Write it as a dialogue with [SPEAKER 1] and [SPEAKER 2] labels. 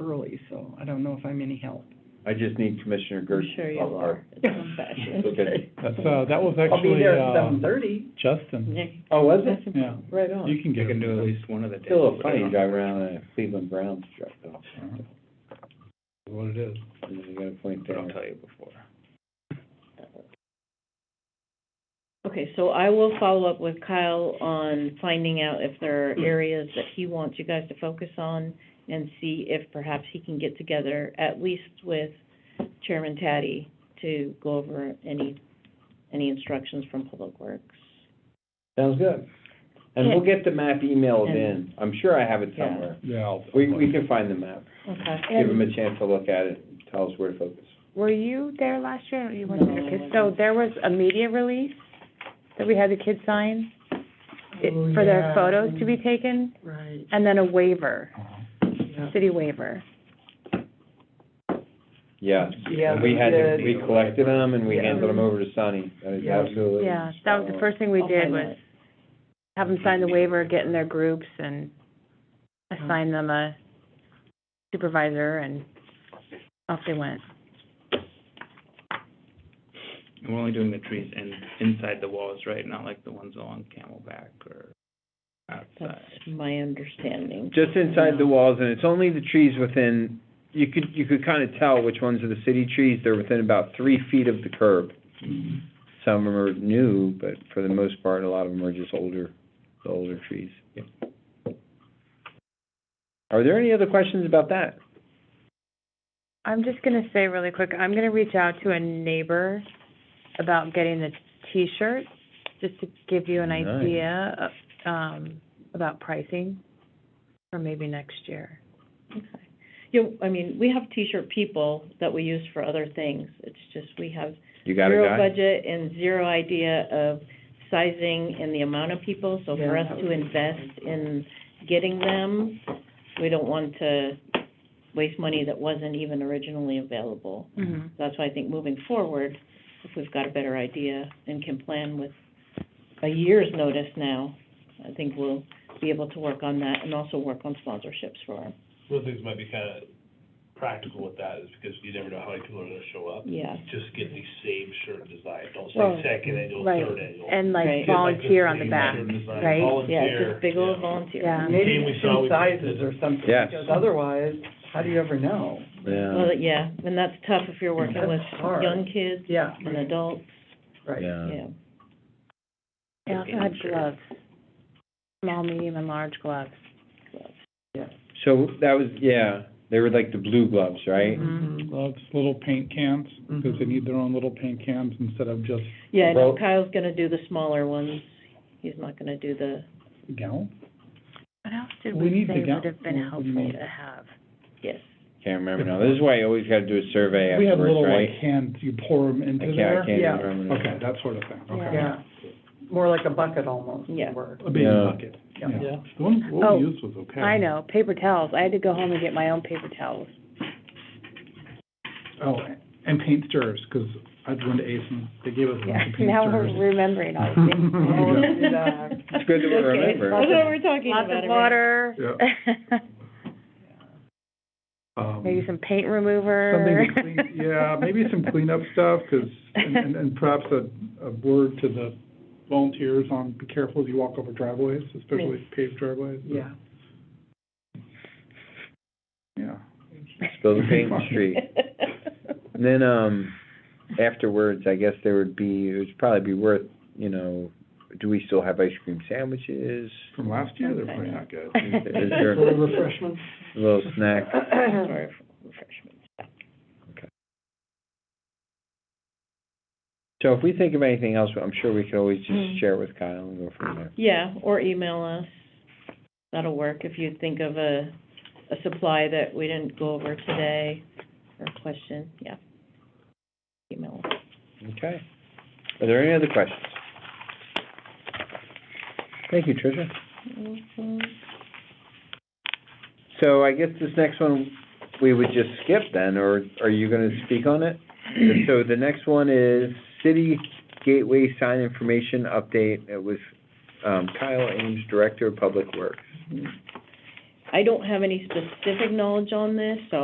[SPEAKER 1] early, so I don't know if I'm any help.
[SPEAKER 2] I just need Commissioner Gertz.
[SPEAKER 3] I'm sure you are. It's old fashioned.
[SPEAKER 2] Okay.
[SPEAKER 4] That's, uh, that was
[SPEAKER 5] I'll be
[SPEAKER 4] actually,
[SPEAKER 5] there at
[SPEAKER 4] uh,
[SPEAKER 5] seven thirty.
[SPEAKER 4] Justin,
[SPEAKER 2] Oh, was it?
[SPEAKER 4] yeah,
[SPEAKER 3] Right on.
[SPEAKER 4] you can
[SPEAKER 6] You
[SPEAKER 4] get.
[SPEAKER 6] can do at least one of the days.
[SPEAKER 2] Still a funny drive around a Cleveland Browns truck though.
[SPEAKER 4] Alright. What it is.
[SPEAKER 2] You gotta point that
[SPEAKER 6] But I'll
[SPEAKER 2] out.
[SPEAKER 6] tell you before.
[SPEAKER 3] Okay, so I will follow up with Kyle on finding out if there are
[SPEAKER 2] Hmm.
[SPEAKER 3] areas that he wants you guys to focus on and see if perhaps he can get together, at least with Chairman Taddy, to go over any, any instructions from Public Works.
[SPEAKER 2] Sounds good. And we'll get the map emailed in. I'm sure I have it
[SPEAKER 3] Yeah.
[SPEAKER 2] somewhere.
[SPEAKER 4] Yeah. I'll-
[SPEAKER 2] We, we can find the map.
[SPEAKER 3] Okay.
[SPEAKER 2] Give them a chance to look at it, and tell us where to focus.
[SPEAKER 7] Were you there last year, or you weren't there?
[SPEAKER 3] No, I
[SPEAKER 7] 'Cause- So there was a media release that we had the kids sign it- for their photos to be taken,
[SPEAKER 1] Oh, Right,
[SPEAKER 7] and then a waiver,
[SPEAKER 4] Uh-huh.
[SPEAKER 1] yeah.
[SPEAKER 7] city waiver.
[SPEAKER 2] Yeah.
[SPEAKER 5] Yeah,
[SPEAKER 2] We had, to-
[SPEAKER 5] the-
[SPEAKER 2] we collected them and we
[SPEAKER 5] Yeah.
[SPEAKER 2] handed them over to Sunny. That is
[SPEAKER 1] Yeah.
[SPEAKER 2] absolutely.
[SPEAKER 7] Yeah, that
[SPEAKER 2] oh,
[SPEAKER 7] was the first thing we
[SPEAKER 3] I'll
[SPEAKER 7] did
[SPEAKER 3] find
[SPEAKER 7] was
[SPEAKER 3] out.
[SPEAKER 7] have them sign the waiver, get in their groups, and assign them a supervisor, and off they went.
[SPEAKER 6] And we're only doing the trees in, inside the walls, right? Not like the ones along Camelback or outside.
[SPEAKER 3] That's my understanding.
[SPEAKER 2] Just inside the walls, and it's only the trees within, you could, you could kind of tell which ones are the city trees. They're within about three feet of the curb.
[SPEAKER 4] Mm-hmm.
[SPEAKER 2] Some are new, but for the most part, a lot of them are just older, the older trees.
[SPEAKER 6] Yep.
[SPEAKER 2] Are there any other questions about that?
[SPEAKER 7] I'm just gonna say really quick, I'm gonna reach out to a neighbor about getting the T-shirts, just to give you an
[SPEAKER 2] Nice.
[SPEAKER 7] idea of, um, about pricing for maybe next year.
[SPEAKER 3] Okay. You, I mean, we have T-shirt people that we use for other things. It's just we have
[SPEAKER 2] You got a
[SPEAKER 3] zero
[SPEAKER 2] guy?
[SPEAKER 3] budget and zero idea of sizing and the amount of people, so for
[SPEAKER 1] Yeah,
[SPEAKER 3] us
[SPEAKER 1] that
[SPEAKER 3] to
[SPEAKER 1] would be
[SPEAKER 3] invest in getting them, we don't want to waste money that wasn't even originally available.
[SPEAKER 7] Mm-hmm.
[SPEAKER 3] That's why I think moving forward, if we've got a better idea and can plan with a year's notice now, I think we'll be able to work on that and also work on sponsorships for them.
[SPEAKER 8] One of the things might be kind of practical with that is because you never know how many people are gonna show up.
[SPEAKER 3] Yeah,
[SPEAKER 8] Just get the same shirt design, don't
[SPEAKER 7] Well,
[SPEAKER 8] say second annual,
[SPEAKER 7] right.
[SPEAKER 8] third annual.
[SPEAKER 7] And
[SPEAKER 3] Right.
[SPEAKER 7] like
[SPEAKER 8] Get like
[SPEAKER 7] volunteer on the
[SPEAKER 8] same
[SPEAKER 7] back,
[SPEAKER 8] shirt design,
[SPEAKER 7] right?
[SPEAKER 3] yeah,
[SPEAKER 8] Volunteer.
[SPEAKER 3] just big old
[SPEAKER 8] yeah.
[SPEAKER 3] volunteer.
[SPEAKER 7] yeah.
[SPEAKER 8] Game
[SPEAKER 1] Maybe
[SPEAKER 8] we saw,
[SPEAKER 1] two
[SPEAKER 8] we
[SPEAKER 1] sizes
[SPEAKER 8] did.
[SPEAKER 1] or something,
[SPEAKER 2] Yes.
[SPEAKER 1] because otherwise, how do you ever know?
[SPEAKER 2] Yeah,
[SPEAKER 3] Well, yeah, and that's tough if you're working with
[SPEAKER 1] That's hard.
[SPEAKER 3] young kids
[SPEAKER 1] Yeah,
[SPEAKER 3] and adults,
[SPEAKER 1] right.
[SPEAKER 2] yeah.
[SPEAKER 3] yeah.
[SPEAKER 7] They also had gloves, small, medium, and large gloves.
[SPEAKER 2] So that was, yeah, they were like the blue gloves,
[SPEAKER 4] Mm-hmm.
[SPEAKER 2] right?
[SPEAKER 1] Mm-hmm.
[SPEAKER 7] Mhm.
[SPEAKER 4] Loves little paint cans, because they
[SPEAKER 1] Mhm.
[SPEAKER 4] need their own little paint cans instead of just
[SPEAKER 3] Yeah, I know
[SPEAKER 2] Well-
[SPEAKER 3] Kyle's gonna do the smaller ones, he's not gonna do the,
[SPEAKER 4] gallon.
[SPEAKER 7] What else did
[SPEAKER 4] We
[SPEAKER 7] we
[SPEAKER 4] need the
[SPEAKER 7] say
[SPEAKER 4] gal-
[SPEAKER 7] would have been
[SPEAKER 4] what do you
[SPEAKER 7] helpful
[SPEAKER 4] mean?
[SPEAKER 7] to have?
[SPEAKER 3] yes.
[SPEAKER 2] Can't remember now. This is why you always gotta do a survey
[SPEAKER 4] We have
[SPEAKER 2] afterwards,
[SPEAKER 4] little
[SPEAKER 2] right?
[SPEAKER 4] like cans, you pour them
[SPEAKER 2] I
[SPEAKER 4] into
[SPEAKER 2] can't,
[SPEAKER 4] there.
[SPEAKER 2] I can't
[SPEAKER 1] Yeah.
[SPEAKER 2] remember. now.
[SPEAKER 4] Okay, that sort of thing, okay.
[SPEAKER 1] Yeah, more like a bucket almost,
[SPEAKER 3] Yeah.
[SPEAKER 1] word.
[SPEAKER 4] A big
[SPEAKER 2] Yeah.
[SPEAKER 4] bucket,
[SPEAKER 1] Yeah.
[SPEAKER 4] yeah. The one, what
[SPEAKER 7] Oh,
[SPEAKER 4] we used was okay.
[SPEAKER 7] I know, paper towels, I had to go home and get my own paper towels.
[SPEAKER 4] Oh, and paint stirrers, because I went to Ace and they gave us a
[SPEAKER 7] Yeah,
[SPEAKER 4] bunch of paint
[SPEAKER 7] now
[SPEAKER 4] stirrers.
[SPEAKER 7] we're remembering all these things.
[SPEAKER 1] Oh,
[SPEAKER 4] Yeah.
[SPEAKER 1] do that.
[SPEAKER 2] It's good that we
[SPEAKER 7] Okay,
[SPEAKER 2] remember.
[SPEAKER 7] lots
[SPEAKER 3] That's
[SPEAKER 7] of-
[SPEAKER 3] what we're talking about.
[SPEAKER 7] Lots of
[SPEAKER 3] Amanda.
[SPEAKER 7] water.
[SPEAKER 4] Um,
[SPEAKER 7] Maybe some paint remover.
[SPEAKER 4] Something to clean, yeah, maybe some cleanup stuff, 'cause, and, and- and perhaps a, a word to the volunteers on, be careful as you walk over driveways, especially paved driveways.
[SPEAKER 1] Yeah.
[SPEAKER 4] Yeah.
[SPEAKER 2] Spill the paint in the street. And then, um, afterwards, I guess there would be, it would probably be worth, you know, do we still have ice cream sandwiches?
[SPEAKER 4] From last year, they're
[SPEAKER 3] Okay.
[SPEAKER 4] probably not good.
[SPEAKER 2] Is there
[SPEAKER 1] Little
[SPEAKER 2] a
[SPEAKER 1] refreshments.
[SPEAKER 2] little snack?
[SPEAKER 3] Or refreshments.
[SPEAKER 2] So if we think of anything else, I'm sure we could always
[SPEAKER 3] Mm.
[SPEAKER 2] just share with Kyle and go from there.
[SPEAKER 3] Yeah, or email us, that'll work, if you think of a, a supply that we didn't go over today, or a question, yeah. Email us.
[SPEAKER 2] Okay. Are there any other questions? Thank you, Tricia.
[SPEAKER 3] Mhm.
[SPEAKER 2] So I guess this next one, we would just skip then, or are you gonna speak on it? So the next one is city gateway sign information update. It was, um, Kyle Ames, Director of Public Works.
[SPEAKER 3] I don't have any specific knowledge on this, so